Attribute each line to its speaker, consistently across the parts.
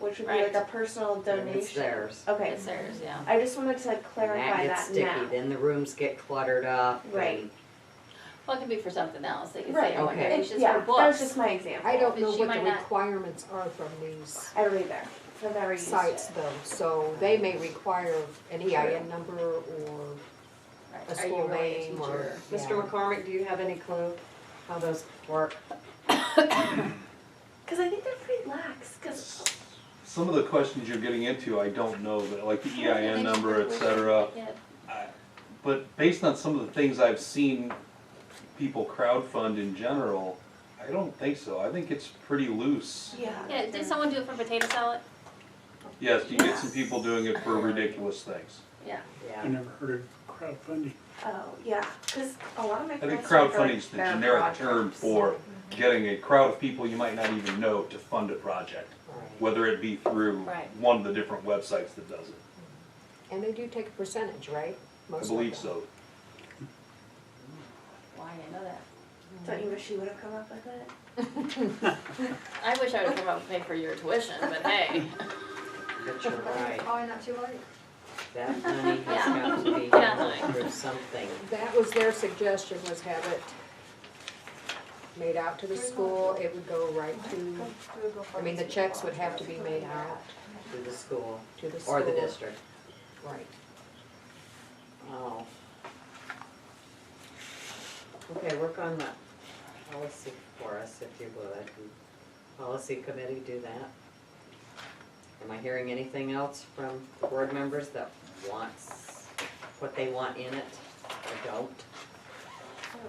Speaker 1: which would
Speaker 2: Right.
Speaker 1: be like a personal
Speaker 3: And
Speaker 1: donation.
Speaker 3: It's theirs.
Speaker 1: Okay.
Speaker 2: It's theirs, yeah.
Speaker 1: I just wanted to
Speaker 3: And
Speaker 1: clarify
Speaker 3: gets
Speaker 1: that,
Speaker 3: sticky.
Speaker 1: now.
Speaker 3: Then the rooms get cluttered up.
Speaker 1: Right.
Speaker 3: and-
Speaker 2: Well, it could be for something else. They could
Speaker 1: Right.
Speaker 2: say, oh,
Speaker 3: Okay.
Speaker 2: okay, it's just
Speaker 1: yeah,
Speaker 2: for
Speaker 1: that was
Speaker 2: books.
Speaker 1: just my example.
Speaker 4: I don't
Speaker 2: But
Speaker 4: know
Speaker 2: she
Speaker 4: what
Speaker 2: might
Speaker 4: the
Speaker 2: not-
Speaker 4: requirements are from these
Speaker 1: I don't either. So I've never used
Speaker 4: sites
Speaker 1: it.
Speaker 4: though, so they may require an EIN number or
Speaker 2: Right.
Speaker 4: a
Speaker 2: Are you
Speaker 4: school
Speaker 2: really a
Speaker 4: name
Speaker 5: E
Speaker 4: or.
Speaker 2: teacher?
Speaker 4: yeah.
Speaker 6: Mr. McCormick, do you have any clue how those work?
Speaker 1: Because I think they're pretty lax. Because
Speaker 5: Some of the questions you're getting into, I don't know, but like the EIN
Speaker 2: They
Speaker 5: number, et
Speaker 2: should
Speaker 5: cetera.
Speaker 2: get-
Speaker 5: I- But based on some of the things I've seen people crowdfund in general, I don't think so. I think it's pretty loose.
Speaker 1: yeah,
Speaker 2: Yeah, did someone do it for potato salad?
Speaker 5: Yes, you get some people doing it for ridiculous things.
Speaker 2: Yeah.
Speaker 7: I
Speaker 3: Yeah.
Speaker 7: never heard of crowdfunding.
Speaker 1: oh yeah, because a lot of my
Speaker 5: I think
Speaker 1: friends are for, like,
Speaker 5: crowdfunding's the
Speaker 1: their
Speaker 5: generic
Speaker 1: broad
Speaker 5: term
Speaker 1: groups.
Speaker 5: for getting a crowd of people you might not even know to fund a project,
Speaker 3: Right.
Speaker 5: whether it be through
Speaker 2: Right.
Speaker 5: one of the different websites that does it.
Speaker 4: And they do take a percentage, right?
Speaker 5: I
Speaker 4: Most of
Speaker 5: believe
Speaker 4: them.
Speaker 5: so.
Speaker 2: Why, I know that.
Speaker 1: Don't you wish you would have come up with it?
Speaker 2: I wish I would've come up and paid for your tuition, but hey,
Speaker 3: But you're right.
Speaker 8: Probably not too late.
Speaker 3: That money has
Speaker 2: Yeah.
Speaker 3: got to be
Speaker 2: Yeah.
Speaker 3: handled through something.
Speaker 4: That was their suggestion, was have it made out to the school, it would go right to, I mean, the checks would have to be made out
Speaker 3: To the school
Speaker 4: to the school.
Speaker 3: or the district.
Speaker 4: Right.
Speaker 3: Oh. Okay, work on the policy for us if you would. Policy committee, do that. Am I hearing anything else from the board members that wants, what they want in it or don't?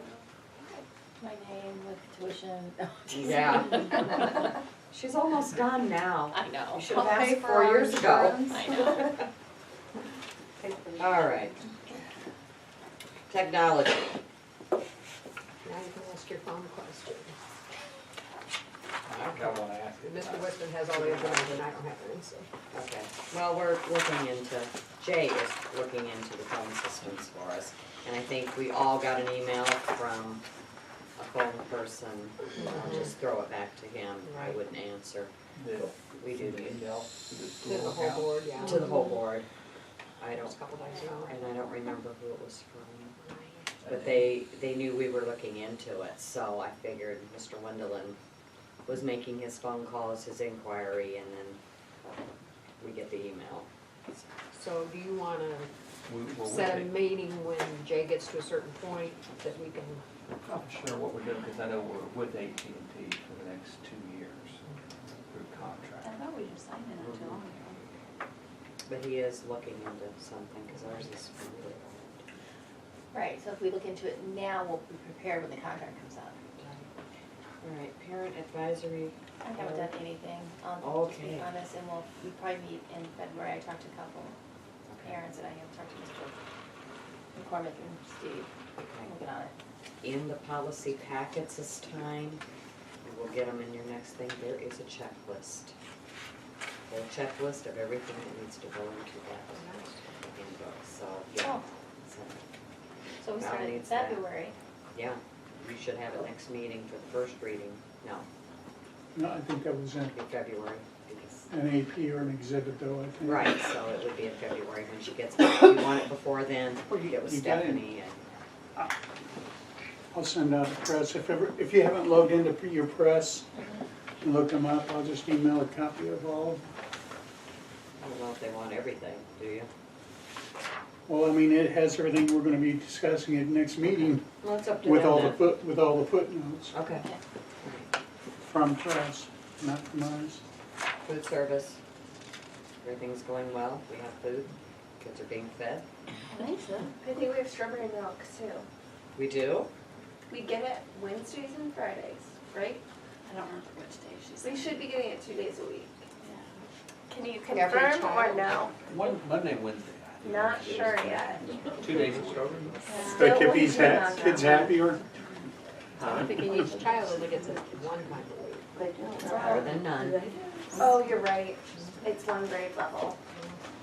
Speaker 2: my name with tuition. Oh, No, I'm just-
Speaker 3: Yeah. She's almost done now.
Speaker 2: I know.
Speaker 3: Should have asked four years ago.
Speaker 2: I know.
Speaker 3: All right. Technology.
Speaker 4: Now you can ask your phone question.
Speaker 3: Okay.
Speaker 4: Mr. Whitman has all the information, I don't have any, so.
Speaker 3: Okay, well, we're looking into, Jay is looking into the phone systems for us. And I think we all got an email from a phone person. I'll just throw it back to him. I
Speaker 4: Right.
Speaker 3: wouldn't answer.
Speaker 9: Bill.
Speaker 3: We do need
Speaker 4: To the whole board, yeah.
Speaker 3: to the whole board. I
Speaker 4: It's
Speaker 3: don't,
Speaker 4: a couple days ago.
Speaker 3: and I don't remember who it was from. But they, they knew we were looking into it, so I figured Mr. Wendelin was making his phone calls, his inquiry, and then we get the email.
Speaker 4: So do you wanna
Speaker 9: We- we're
Speaker 4: set a
Speaker 9: waiting.
Speaker 4: meeting when Jay gets to a certain point that we can,
Speaker 9: Not sure what we're doing, because I know we're with AT&T for the next two years through
Speaker 2: I
Speaker 9: contract.
Speaker 2: thought we just signed it not too long ago.
Speaker 3: But he is looking into something, because ours is really old.
Speaker 2: Right, so if we look into it now, we'll be prepared when the contract comes out.
Speaker 3: All right, parent advisory,
Speaker 2: I haven't done anything on, to be
Speaker 3: Okay.
Speaker 2: honest, and we'll, we probably meet in February, I talked to a couple parents, and I have talked to Mr. McCormick and Steve,
Speaker 3: okay.
Speaker 2: looking on it.
Speaker 3: in the policy packets this time. and We'll get them in your next thing. There is a checklist. A checklist of everything that needs to go into that handbook, so, yeah.
Speaker 2: Oh.
Speaker 3: So,
Speaker 2: So we
Speaker 3: Now
Speaker 2: started in
Speaker 3: needs that.
Speaker 2: February,
Speaker 3: Yeah, you should have it next meeting for the first reading. No,
Speaker 7: No, I think that was in
Speaker 3: in February, because,
Speaker 7: an AP or an exhibit though, I think.
Speaker 3: right, so it would be in February when she gets, back. If you want it before then, it was
Speaker 7: you got it.
Speaker 3: Stephanie and.
Speaker 7: I'll send out the press. If ever, if you haven't logged into p- your press and looked them up, I'll just email a copy of all. of them.
Speaker 3: I don't know if they want everything, do you?
Speaker 7: Well, I mean, it has everything we're gonna be discussing at next meeting
Speaker 3: Well, it's up to
Speaker 7: with
Speaker 3: them
Speaker 7: all the
Speaker 3: then.
Speaker 7: foot, with all the footnotes
Speaker 3: Okay.
Speaker 7: from press, not from ours.
Speaker 3: Food service, everything's going well, we have food, kids are being fed.
Speaker 2: I think so.
Speaker 1: I think we have strawberry milk too.
Speaker 3: We do?
Speaker 1: We get it Wednesdays and Fridays, right?
Speaker 2: I don't remember which day she said.
Speaker 1: We should be getting it two days a week. Can you
Speaker 4: Every
Speaker 1: confirm or
Speaker 4: child.
Speaker 1: no?
Speaker 9: One, Monday, Wednesday. I think.
Speaker 1: Not sure yet.
Speaker 9: Two days. ago.
Speaker 7: But if he's
Speaker 1: Still
Speaker 4: uh,
Speaker 1: working
Speaker 7: ha-
Speaker 1: on
Speaker 7: kids
Speaker 1: that.
Speaker 7: happier,
Speaker 4: I'm thinking each child only gets it one time a week.
Speaker 3: Better than none,
Speaker 1: Oh, you're right. It's one grade level,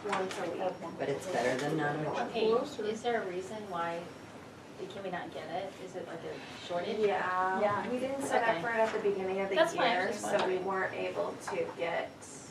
Speaker 1: once a week.
Speaker 3: but it's better than none.
Speaker 2: Okay, is there a reason why, can we not get it? Is it like a shortage?
Speaker 1: Yeah.
Speaker 2: Yeah.
Speaker 1: We didn't set up
Speaker 2: Okay.
Speaker 1: for it at the beginning of the
Speaker 2: That's fine, I
Speaker 1: year,
Speaker 2: was just
Speaker 1: so we
Speaker 2: wondering.
Speaker 1: weren't able to get